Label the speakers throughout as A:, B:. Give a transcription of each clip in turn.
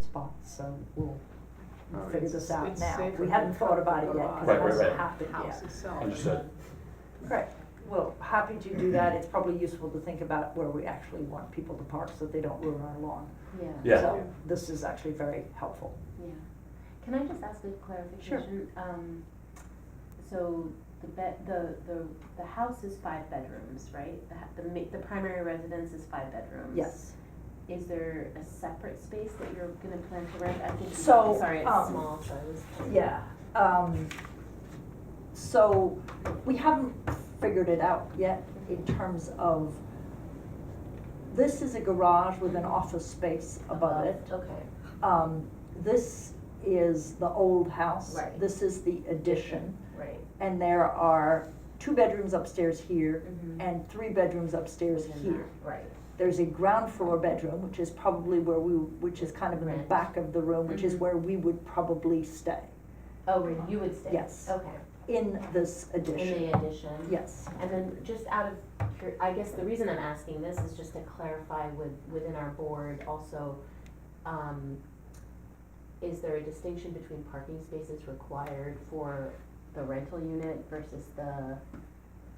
A: spot, so we'll
B: All right.
A: figure this out
C: Oh, It's
A: now.
C: safer
A: We haven't
C: than
A: thought about it
C: the
A: yet, because
C: lot.
A: it
D: Right, right,
A: hasn't
D: right.
A: happened
C: house
A: yet.
C: itself.
D: Understood.
A: Correct. Well, happy to do that. It's probably useful to think about where we actually want people to park so that they don't ruin our lawn.
E: Yeah.
D: Yeah.
A: So this is actually very helpful.
E: Yeah. Can I just ask a clarification? Sure. Um, so the bed, the, the, the house is five bedrooms, right? The, ha- the ma- the primary residence is five bedrooms.
A: Yes.
E: Is there a separate space that you're gonna plan to rent? I think,
A: So,
E: sorry, it's
A: um,
E: small, so I was.
A: Yeah, um, so we haven't figured it out yet in terms of, this is a garage with an office space above it.
E: Okay.
A: Um, this is the old house.
E: Right.
A: This is the addition,
E: Right.
A: and there are two bedrooms upstairs here
E: Mhm.
A: and three bedrooms upstairs
E: Within
A: here.
E: that, Right.
A: There's a ground floor bedroom, which is probably where we, which is kind of in the
E: Right.
A: back of the room, which is
E: Mhm.
A: where we would probably stay
E: Oh, where you would stay?
A: Yes.
E: Okay.
A: in this addition.
E: In the addition?
A: Yes,
E: And then just out of, cur- I guess the reason I'm asking this is just to clarify with, within our board also, um, is there a distinction between parking spaces required for the rental unit versus the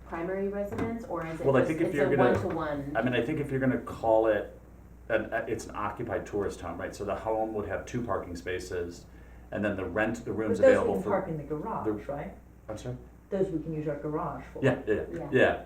E: primary residence, or is it
D: Well, I
E: just,
D: think if
E: it's a
D: you're gonna-
E: one-to-one?
D: I mean, I think if you're gonna call it, an, uh, it's an occupied tourist home, right? So the home would have two parking spaces, and then the rent, the rooms available for.
A: in the
D: the-
A: garage, right?
D: I'm sorry?
A: Those we can use our garage for.
D: Yeah, yeah, yeah,
E: Yeah.
D: yeah.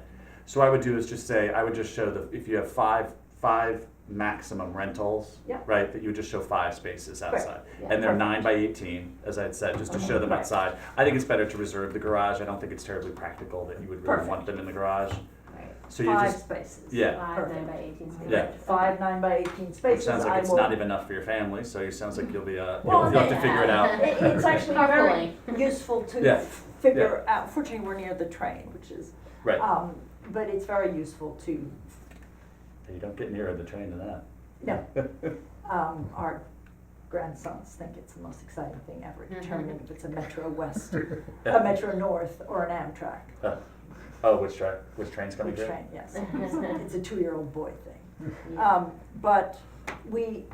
D: So I would do is just say, I would just show the, if you have five, five maximum rentals,
A: Yeah.
D: right, that you would just show five spaces
A: Right. Oh
D: outside.
E: Yeah.
D: And they're nine by eighteen, as I had said, just to show them
A: Right.
D: outside. I think it's better to reserve the garage. I don't think it's terribly practical that you would really want them in the garage.
E: Right.
D: So you
A: Five
D: just,
A: spaces.
D: yeah.
E: Five, nine by eighteen spaces.
D: Yeah.
A: Five nine by eighteen
D: It
A: spaces,
D: sounds
A: I
D: like it's
A: will-
D: not even enough for your family, so it sounds like you'll be, uh,
A: Well,
D: you'll you'll have to figure it out.
A: It- It's actually very useful to
D: Yeah,
A: f- figure out, fortunately, we're near the train, which is,
D: Right.
A: um, but it's very useful to,
D: You don't get nearer the train to that.
A: no. Um, our grandsons think it's the most exciting thing ever, determining if it's a Metro West, a Metro North, or an Amtrak.
D: Uh, Oh, which train, which train's coming
A: Which
D: through?
A: train, yes. It's a two-year-old boy thing.
E: Yeah.
A: Um, but we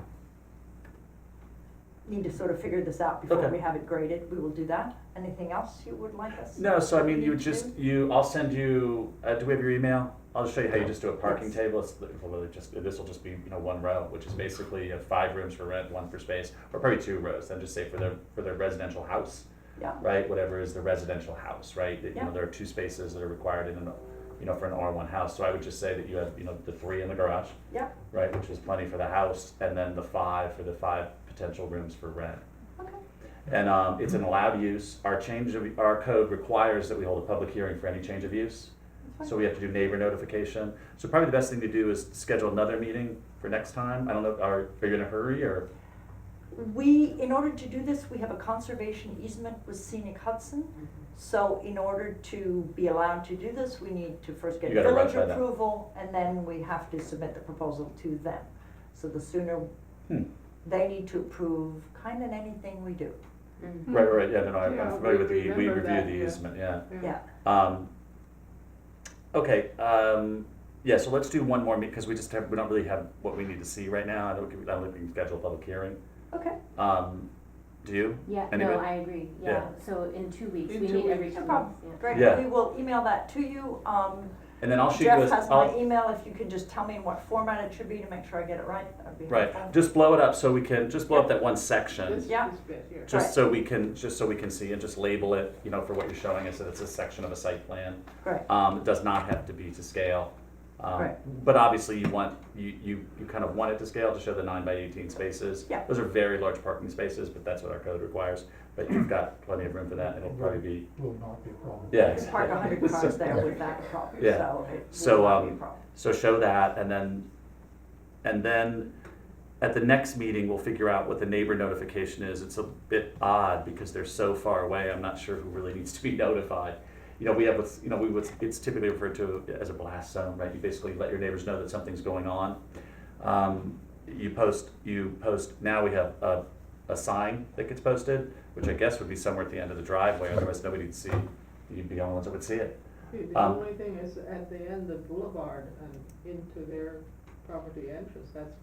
A: need to sort of figure this out before
D: Okay.
A: we have it graded. We will do that. Anything else you would like us?
D: No, so I mean, you
A: need
D: would
A: to
D: just,
A: do?
D: you, I'll send you, uh, do we have your email? I'll just show you how you just do a parking
A: Yes.
D: table, it's literally just, this will just be, you know, one row, which is basically you have five rooms for rent, one for space, or probably two rows, then just say for their, for their residential house,
A: Yeah,
D: right, whatever is the residential house, right? That, you
A: Yeah.
D: know, there are two spaces that are required in an, you know, for an R one house, so I would just say that you have, you know, the three in the garage,
A: yeah,
D: right, which is plenty for the house, and then the five for the five potential rooms for rent.
E: Okay.
D: And um, it's an allowed use. Our change of, our code requires that we hold a public hearing for any change of use. So we have to do neighbor notification. So probably the best thing to do is schedule another meeting for next time. I don't know, are, are you in a hurry or?
A: We, in order to do this, we have a conservation easement with Scenic Hudson. So in order to be allowed to do this, we need to first get
D: You gotta
A: village
D: run by them.
A: approval and then we have to submit the proposal to them. So the sooner,
D: Hmm.
A: they need to approve kind of anything we do,
E: Mm.
D: Right, right, right. yeah, no, no, I'm- I'm
C: Yeah, we
D: familiar with the, we
C: remember
D: review
C: that,
D: the
C: yeah.
D: easement, yeah.
A: yeah.
D: Um, okay, um, yeah, so let's do one more meet, because we just have, we don't really have what we need to see right now. I don't, I don't think we can schedule a public hearing.
A: Okay.
D: Um, do you?
E: Yeah, no,
D: Anybody?
E: I agree, yeah,
D: Yeah.
E: so in two weeks,
C: In
E: we
C: two
E: meet every
C: weeks.
E: two
A: No
E: weeks,
A: problem.
E: yeah.
A: Great,
D: Yeah.
A: we will email that to you. Um,
D: And then I'll shoot you a.
A: Jeff has my
D: I'll-
A: email, if you could just tell me in what format it should be to make sure I get it right, that would be helpful.
D: Right, just blow it up so we can, just blow up that one section,
C: This,
A: Yeah.
C: this bit here.
A: Right.
D: just so we can, just so we can see and just label it, you know, for what you're showing us, that it's a section of a site plan.
A: Great,
D: Um, it does not have to be to scale. Um,
A: Right.
D: But obviously you want, you, you, you kind of want it to scale to show the nine by eighteen spaces.
A: Yeah.
D: Those are very large parking spaces, but that's what our code requires, but you've got plenty of room for that, and it'll probably be,
F: will not be a problem.
D: yeah.
A: you can park a hundred
D: exactly.
A: cars there without a problem,
D: Yeah.
A: so it
D: So,
A: will not be a
D: um,
A: problem.
D: So show that, and then, and then at the next meeting, we'll figure out what the neighbor notification is. It's a bit odd because they're so far away. I'm not sure who really needs to be notified. You know, we have what's, you know, we what's, it's typically referred to as a blast zone, right? You basically let your neighbors know that something's going on. Um, you post, you post. Now we have a, a sign that gets posted, which I guess would be somewhere at the end of the driveway. Otherwise, nobody'd see. You'd be the only ones that would see it.
C: Hey, The
D: Um,
C: only thing is at the end of Boulevard and into their um, property entrance, that's